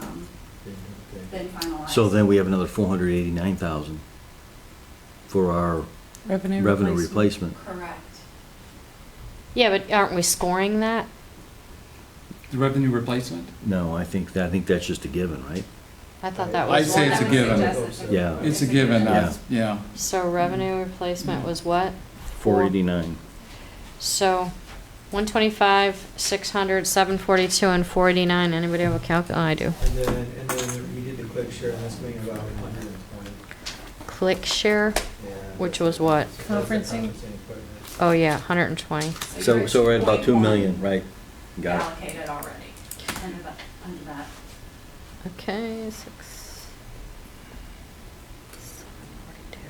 um, been finalized. So then we have another four hundred eighty-nine thousand for our Revenue revenue replacement. Correct. Yeah, but aren't we scoring that? The revenue replacement? No, I think, that I think that's just a given, right? I thought that I'd was say one it's a that- given. Yeah. It's a given, Yeah. I- yeah. So revenue replacement was what? Four eighty-nine. So, one twenty-five, six hundred, seven forty-two, and four eighty-nine. Anybody have a calculator? I do. And then, and then we did the quick share, and that's being about hundred and twenty. Click share. Which was what? Conferencing? Oh yeah, hundred and twenty. So, so we're at about two million, right? Got it. Allocated already under that, under that. Okay, six. seven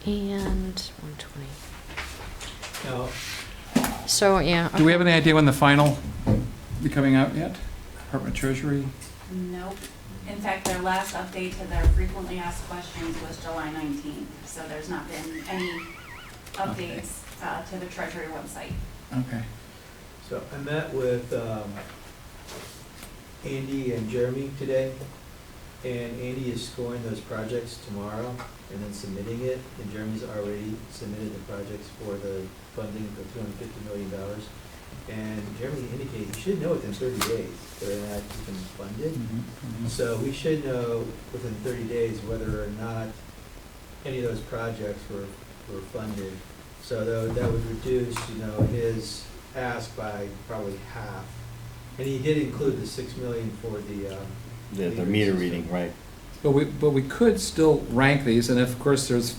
forty-two, forty-nine, And one twenty. Now, So, yeah. Do we have okay. any idea when the final be coming out yet? Department of Treasury? Nope. In fact, their last update to their frequently asked questions was July 19th, so there's not been any Okay. updates uh, to the Treasury website. Okay. so I met with, um, Andy and Jeremy today, and Andy is scoring those projects tomorrow and then submitting it, and Jeremy's already submitted the projects for the funding for two hundred and fifty million dollars. And Jeremy indicated, you should know within thirty days whether or not you can fund it. Mhm, mhm. So we should know within 30 days whether or not any of those projects were, were funded. So tho- that would reduce, you know, his ask by probably half. And he did include the 6 million for the, um, The, the meter reading, right? But we, but we could still rank these, and if, of course, there's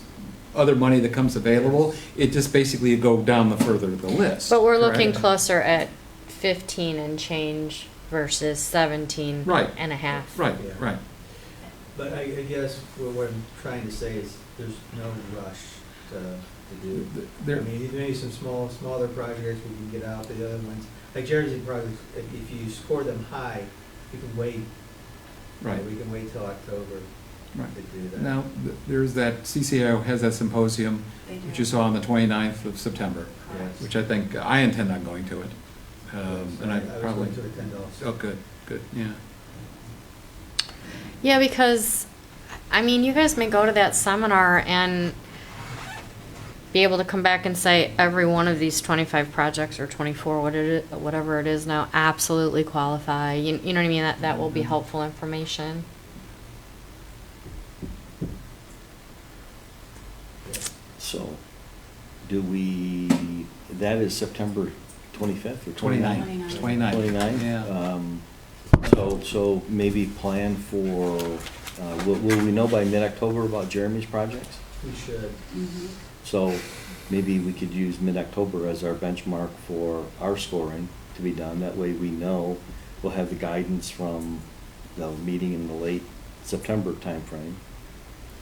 other money that comes available, it just basically go down the further the list. But we're looking correct? closer at fifteen and change versus seventeen Right. and a half. Right, Yeah. right. but I, I guess what what I'm trying to say is there's no rush to, to do. I There, mean, maybe some small, smaller projects we can get out, but the other ones, like Jersey projects, if if you score them high, you can wait. you know, right, We can wait till October right. to do that. Now, th- there's that, CCAO has that symposium, They do. which you saw on the 29th of September, Correct. which I think, I intend on going to it. Um, And I was probably, going to attend also. oh, good, good, yeah. Yeah, because, I mean, you guys may go to that seminar and be able to come back and say every one of these twenty-five projects or twenty-four, what it, i- whatever it is now, absolutely qualify. You, you know what I mean? That, that will be Mm-hmm. helpful information. So, do we, that is September twenty-fifth or 29th. 29th? 29. 29th? yeah. Um, So, so maybe plan for, uh, will, will we know by mid-October about Jeremy's projects? We should. Mhm. So maybe we could use mid-October as our benchmark for our scoring to be done. That way we know we'll have the guidance from the meeting in the late September timeframe.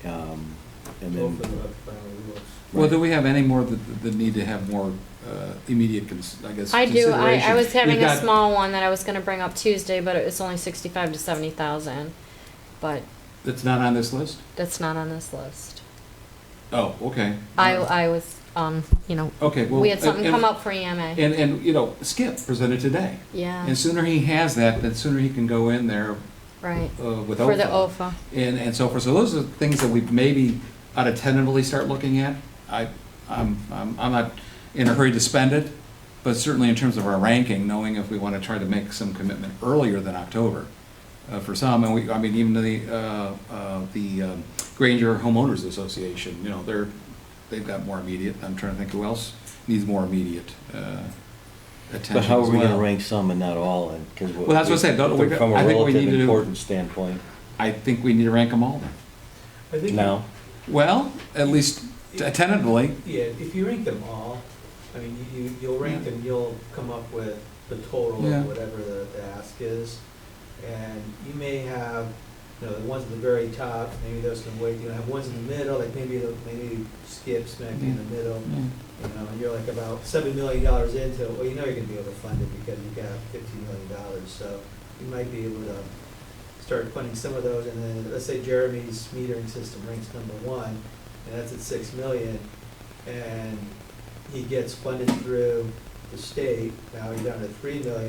Um, And Both of then, the final rules. Well, do we have any more that, that need to have more uh, immediate, cons- I guess, I do, I, I consideration? was having We've a got- small one that I was gonna bring up Tuesday, but it was only sixty-five to seventy thousand, but That's not on this list? that's not on this list. Oh, okay. I, I was, um, you know, Okay, well. we had something and- come up for E EMA. And, and, you know, Skip presented today. Yeah, And sooner he has that, the sooner he can go in there right, uh, with for the OFA. OFA. And, and so forth. So those are things that we maybe ought to tentatively start looking at. I, I'm, I'm I'm not in a hurry to spend it, but certainly in terms of our ranking, knowing if we want to try to make some commitment earlier than October uh, for some, and we, I mean, even the, uh, uh, the um, Granger Homeowners Association, you know, they're, they've got more immediate. I'm trying to think who else needs more immediate uh, attention but how are as we gonna well. rank some and not all? And, cause. what- Well, that's what I said, don't- we- From I a think we need relative to do- importance standpoint, I think we need to rank them all then. I think, now, Well, at least t- tentatively, yeah, if you rank them all, I mean, you- you, you'll rank Yeah. them, you'll come up with the total Yeah. of whatever the, the ask is. And you may have, you know, the ones at the very top, maybe those can wait, you know, have ones in the middle, like maybe, the- maybe skips, maybe in the middle. You know, and you're like about seven million dollars into it, well, you know you're gonna be able to fund it because you got fifteen million dollars, so you might be able to start funding some of those, and then, let's say Jeremy's metering system ranks number one, and that's at six million, and he gets funded through the state, now you're down to three million,